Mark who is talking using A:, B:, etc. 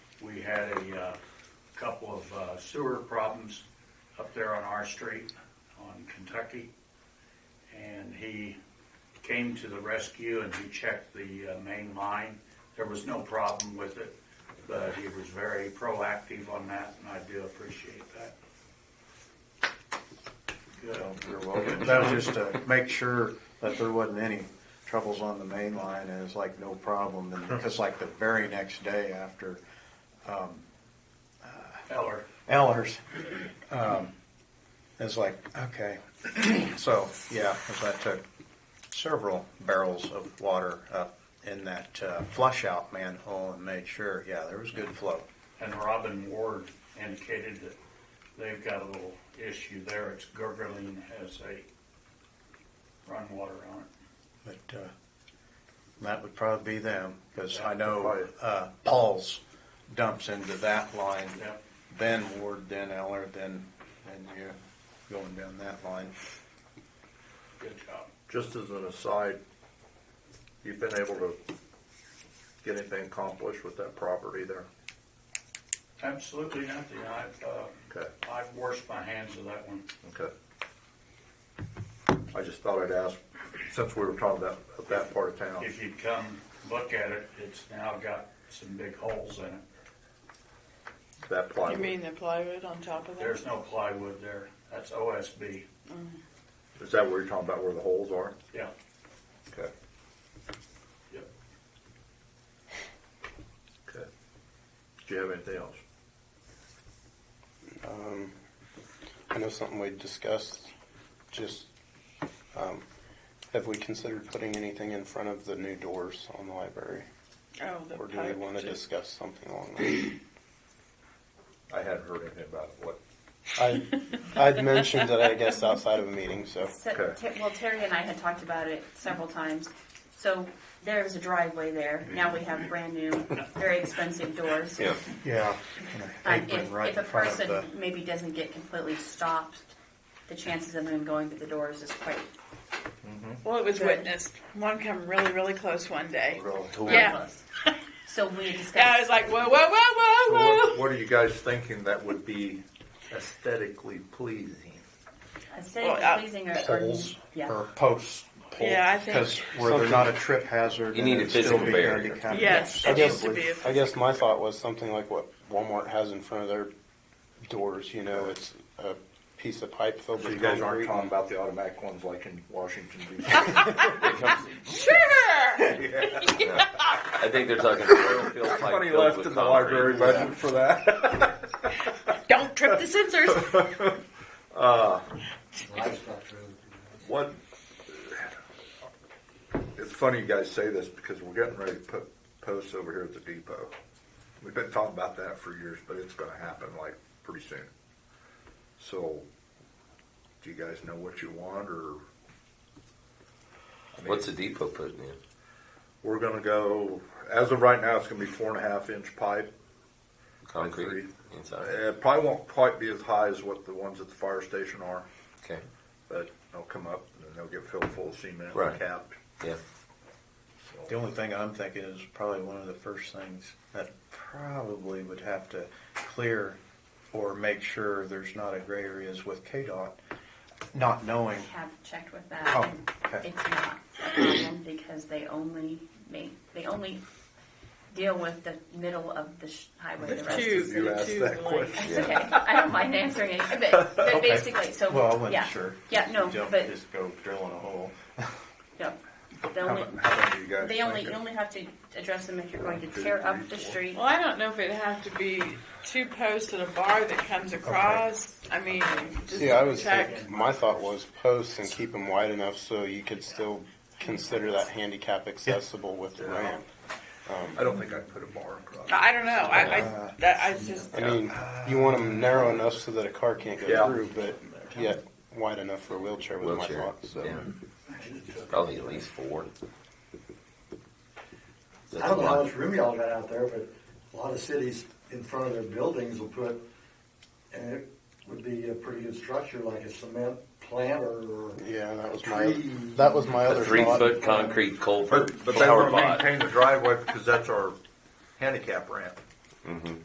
A: we had a, uh, couple of uh, sewer problems up there on our street on Kentucky. And he came to the rescue and he checked the uh, main line. There was no problem with it, but he was very proactive on that and I do appreciate that. Good.
B: You're welcome. That was just to make sure that there wasn't any troubles on the main line and it's like no problem. And because like the very next day after
A: Eller,
B: Ellers, um, it's like, okay. So, yeah, 'cause I took several barrels of water up in that uh, flush out manhole and made sure, yeah, there was good flow.
A: and Robin Ward indicated that they've got a little issue there. It's gurgling has a run water on it.
B: But uh, that would probably be them, because I know uh, Paul's dumps into that line,
A: Yep.
B: then Ward, then Eller, then, and you going down that line.
A: Good job.
C: Just as an aside, you've been able to get anything accomplished with that property there?
A: Absolutely nothing. I've, uh,
C: Okay,
A: I've washed my hands of that one.
C: okay. I just thought I'd ask, since we were talking about, about that part of town.
A: If you'd come look at it, it's now got some big holes in it.
C: that
D: You
C: plywood.
D: mean the plywood on top of that?
A: There's no plywood there. That's OSB.
C: Is that where you're talking about where the holes are?
A: Yeah.
C: Okay,
A: Yep.
C: okay. Do you have anything else?
E: Um, I know something we discussed, just, um, have we considered putting anything in front of the new doors on the library?
D: oh, the
E: Or do we
D: pipe
E: want to
D: too.
E: discuss something along that?
C: I hadn't heard anything about it, what?
E: I, I'd mentioned that, I guess, outside of a meeting, so.
F: So,
C: Okay.
F: Ter- well, Terry and I had talked about it several times. So there is a driveway there. Now we have brand new, very expensive doors.
E: Yeah.
D: Uh,
B: Yeah.
F: Um, if, if a person maybe doesn't get completely stopped, the chances of them going through the doors is quite.
D: Well, it was
F: Good.
D: witnessed. One come really, really close one day.
F: very
D: Yeah.
F: close. So we had discussed.
D: Yeah, I was like, whoa, whoa, whoa,
C: So
D: whoa, whoa.
C: what, what are you guys thinking that would be aesthetically pleasing?
F: aesthetically
D: Well, uh,
F: pleasing or, or-
B: Poles
F: yeah.
B: or posts.
D: Yeah, I think-
B: Because where they're not a trip hazard.
G: You
B: and
G: need a
B: it'd still
G: physical
B: be
G: barrier.
B: handicapped
D: Yes, it needs to
B: accessible.
D: be. a-
E: I guess my thought was something like what Walmart has in front of their doors, you know, it's a piece of pipe filled
C: So
E: with
C: you guys aren't
E: concrete.
C: talking about the automatic ones like in Washington DC?
D: Sure.
G: I think they're talking oil field pipe
C: Money
G: filled
C: left
G: with
C: in the
G: concrete.
C: library budget for that.
D: Don't trip the sensors.
C: What? It's funny you guys say this because we're getting ready to put posts over here at the depot. We've been talking about that for years, but it's going to happen like pretty soon. So, do you guys know what you want, or I mean,
G: What's the depot putting in?
C: we're going to go? As of right now, it's going to be four and a half inch pipe.
G: Concrete
C: Concrete.
G: inside.
C: It probably won't quite be as high as what the ones at the fire station are.
G: Okay.
C: but they'll come up and then they'll get filled full of cement
G: Right.
C: and capped.
G: Yeah.
B: The only thing I'm thinking is probably one of the first things that probably would have to clear or make sure there's not a gray areas with KDOT, not knowing.
F: I have checked with that.
B: Oh,
F: and
B: okay.
F: It's not a problem because they only make, they only deal with the middle of the sh- highway. The rest
D: Two,
F: is
C: You
D: the
C: asked
D: two
C: that
D: lane.
C: question.
F: It's okay. I don't mind answering it, but, but
B: Okay.
F: basically, so
B: Well, I wasn't
F: yeah,
B: sure.
F: yeah, no,
B: Don't
F: but
B: Just go drilling a hole.
F: yeah, the
C: How
F: only,
C: mu- how many do you guys
F: they only you
C: thinking?
F: only have to address them if you're going
C: One, two,
F: to tear up
C: three,
F: the
C: four.
F: street.
D: Well, I don't know if it'd have to be two posts and a bar that comes across. I mean, just
E: Yeah, I was
D: check.
E: thinking, my thought was posts and keep them wide enough so you could still consider that handicap accessible with the ramp.
C: I don't think I'd put a bar across.
D: I don't know. I, I, that, I just.
E: I mean, you want them narrow enough so that a car can't go
C: Yeah.
E: through, but yet wide enough for a wheelchair was my
G: Wheelchair.
E: thought, so.
G: Yeah. Probably at least four. That's
H: I
G: a
H: don't know how
G: lot.
H: much room y'all got out there, but a lot of cities in front of their buildings will put, and it would be a pretty good structure, like a cement planter or.
E: Yeah, that was my,
H: Tree.
E: that was my
G: A
E: other
G: three
E: thought.
G: foot concrete culvert
C: But, but they
G: flower
C: want to
G: pot.
C: maintain the driveway because that's our handicap ramp.